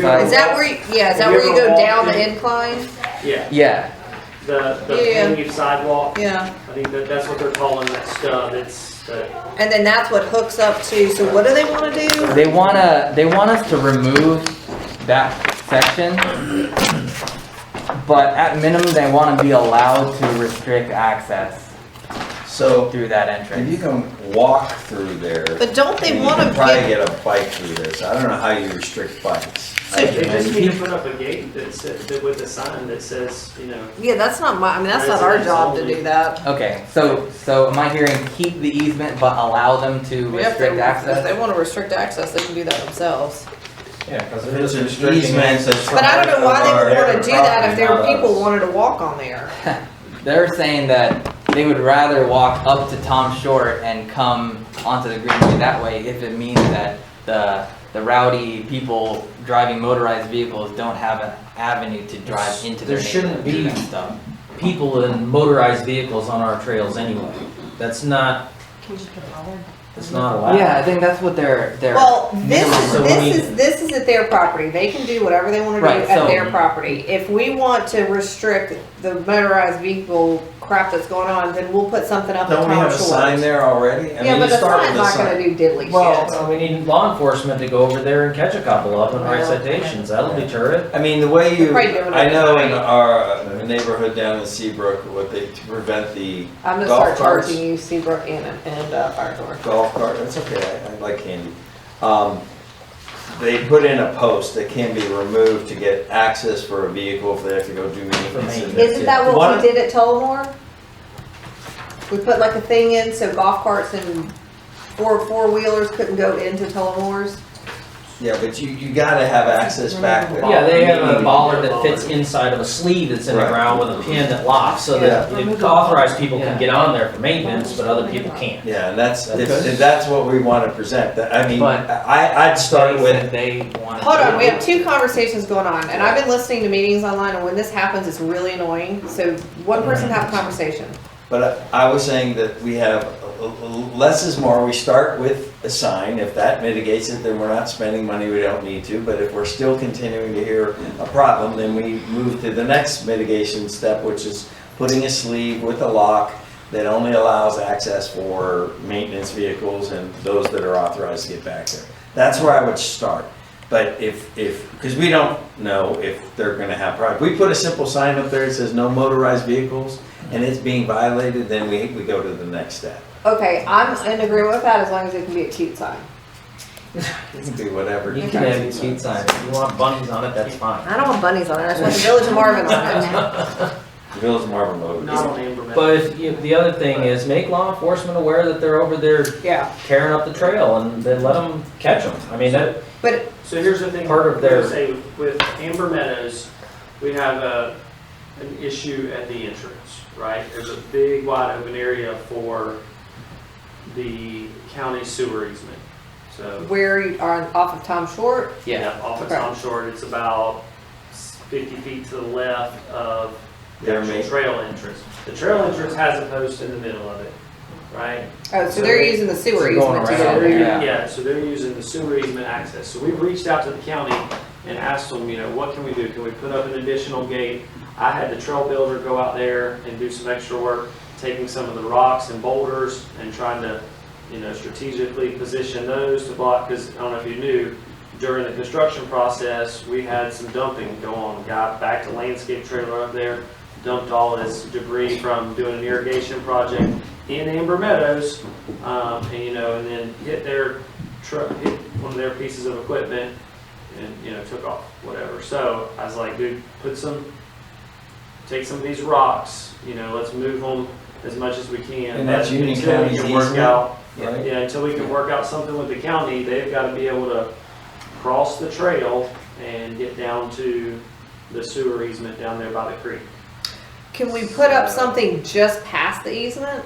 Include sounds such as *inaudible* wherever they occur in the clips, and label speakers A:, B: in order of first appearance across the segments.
A: Is
B: Uh,
A: that where, you- yeah, is that
B: Have you
A: where you
B: ever
A: go down
B: walked
A: the
B: in?
A: incline?
B: Yeah,
C: Yeah,
B: the, the
A: Yeah.
B: paved sidewalk,
A: Yeah.
B: I think that, that's what they're calling that stub, it's, the-
A: And then that's what hooks up to, so what do they wanna do?
C: they wanna, they want us to remove that section. But at minimum, they wanna be allowed to restrict access
D: So
C: through that
D: if
C: entrance.
D: you can walk through there.
A: But don't they
D: and you
A: wanna
D: can Probably
A: get-
D: get a bike through this. I don't know how you restrict bikes. I
B: they just
D: don't
B: need
D: know.
B: to put up a gate that says, that with a sign that says, you know,
A: Yeah, that's not my, I mean, that's not our job to do that.
C: Okay, so, so am I hearing keep the easement but allow them to
A: If they,
C: restrict
A: if
C: access?
A: they wanna restrict access, they can do that themselves.
E: Yeah, because
D: If it's an easement.
A: But I don't know why they would wanna do that if
E: there
A: their people wanted to walk on there.
C: They're saying that they would rather walk up to Tom Short and come onto the greenway that way if it means that the, the rowdy people driving motorized vehicles don't have an avenue to drive into their
E: There shouldn't
C: neighborhood to do
E: be-
C: that stuff.
E: People in motorized vehicles on our trails anyway. That's not, that's not allowed.
C: Yeah, I think that's what they're, they're.
A: Well, this is,
E: So we-
A: this is, this is at their property, they can do whatever they wanna do
C: Right,
A: at
C: so-
A: their property. If we want to restrict the motorized vehicle crap that's going on, then we'll put something up at
D: Don't we have
A: Tom
D: a sign
A: Shores.
D: there already? I
A: Yeah,
D: mean,
A: but
D: you
A: the
D: start
A: sign's
D: with a
A: not gonna do
D: sign.
A: diddly shit.
E: Well, uh, we need law enforcement to go over there and catch a couple of them, write
A: Well,
E: citations, that'll deter it.
D: I mean, the way you,
A: Probably doing it
D: I know in
A: right.
D: our uh, neighborhood down in Seabrook, what they, to prevent the
A: I'm gonna
D: golf
A: start
D: carts.
A: charging you Seabrook and, and uh, Fire Door.
D: golf cart, that's okay, I, I like candy. Um, they put in a post that can be removed to get access for a vehicle if they have to go do maintenance. in there.
A: Isn't that what
D: One-
A: we did at Tullamore? We put like a thing in so golf carts and four, four wheelers couldn't go into Tullamore's.
D: Yeah, but you, you gotta have access back there.
E: Yeah, they have a
B: Maybe.
E: bollard that fits inside of a sleeve that's in the
D: Right.
E: ground with a pin that locks, so that the authorized people can get on there for maintenance, but other people can't.
D: Yeah, and that's,
E: Okay.
D: it's- and that's what we wanna present, that, I mean,
C: But-
D: I, I'd start
C: They
D: with,
C: said They wanted.
A: Hold
C: to-
A: on, we have two conversations going on, and I've been listening to meetings online, and when this happens, it's really annoying. So one person have a conversation.
D: But I I was saying that we have, uh, uh, less is more, we start with a sign, if that mitigates it, then we're not spending money we don't need to, but if we're still continuing to hear a problem, then we move to the next mitigation step, which is putting a sleeve with a lock that only allows access for maintenance vehicles and those that are authorized to get back there. That's where I would start, but if, if, because we don't know if they're gonna have, problems. we put a simple sign up there that says no motorized vehicles, and it's being violated, then we, we go to the next step.
A: Okay, I'm in agreement with that as long as it can be a cute sign.
D: It can be whatever.
E: You can have speed signs, if you want bunnies on it, that's fine.
A: I don't want bunnies on it, I just
D: *laughs*
A: want the Village of Marvin on it.
D: Village Marvin Road.
B: not on Amber Mountain.
E: But if, you- the other thing is, make law enforcement aware that they're over there
A: Yeah,
E: tearing up the trail and then let them catch them. I mean, that,
A: but
B: So here's the thing,
E: Part
B: we're
E: of their-
B: gonna say, with Amber Meadows, we have a, an issue at the entrance, right? There's a big wide open area for the county sewer easement, so.
A: where you are off of Tom Short,
C: Yeah,
B: Off of
A: Okay.
B: Tom Short, it's about fifty feet to the left of the
D: Their
B: actual
D: main-
B: trail entrance. The trail entrance has a post in the middle of it, right?
A: oh, so they're using the
E: So
A: sewer
E: going
A: easement to
E: around,
A: get it.
C: Yeah.
B: Yeah, so they're using the sewer easement access. So we've reached out to the county and asked them, you know, what can we do? Can we put up an additional gate? I had the trail builder go out there and do some extra work, taking some of the rocks and boulders and trying to, you know, strategically position those to block, because I don't know if you knew, during the construction process, we had some dumping go on. Guy backed a landscape trailer up there, dumped all his debris from doing an irrigation project in Amber Meadows, um, and, you know, and then hit their truck, hit one of their pieces of equipment and, you know, took off, whatever. So I was like, dude, put some, take some of these rocks, you know, let's move them as much as we can.
D: And that's
B: But
D: Union
B: until we
D: County's
B: can work
D: easement,
B: out-
D: right?
B: Yeah, until we can work out something with the county, they've gotta be able to cross the trail and get down to the sewer easement down there by the creek.
A: Can we put up something just past the easement?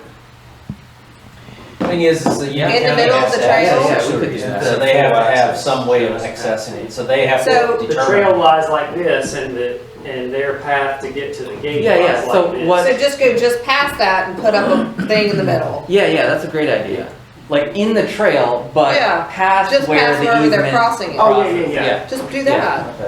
E: thing is, is that, yeah.
A: In the
E: county
A: middle of
E: has
A: the
E: to have
A: trail?
E: access
C: Yeah, we could do
E: to it,
C: that.
E: So they have to have some way of accessing it, so they have
A: So-
E: to
B: The trail
E: determine.
B: lies like this and the, and their path to get to the gate
C: Yeah, yeah,
B: lies
C: so
B: like this.
C: what-
A: So just go just past that and put up a thing in the middle.
C: yeah, yeah, that's a great idea. Like in the trail, but
A: Yeah,
C: past
A: Just
C: where
A: past
C: the
A: wherever they're
C: easement.
A: crossing it.
B: Oh, yeah, yeah, yeah.
A: Just do that.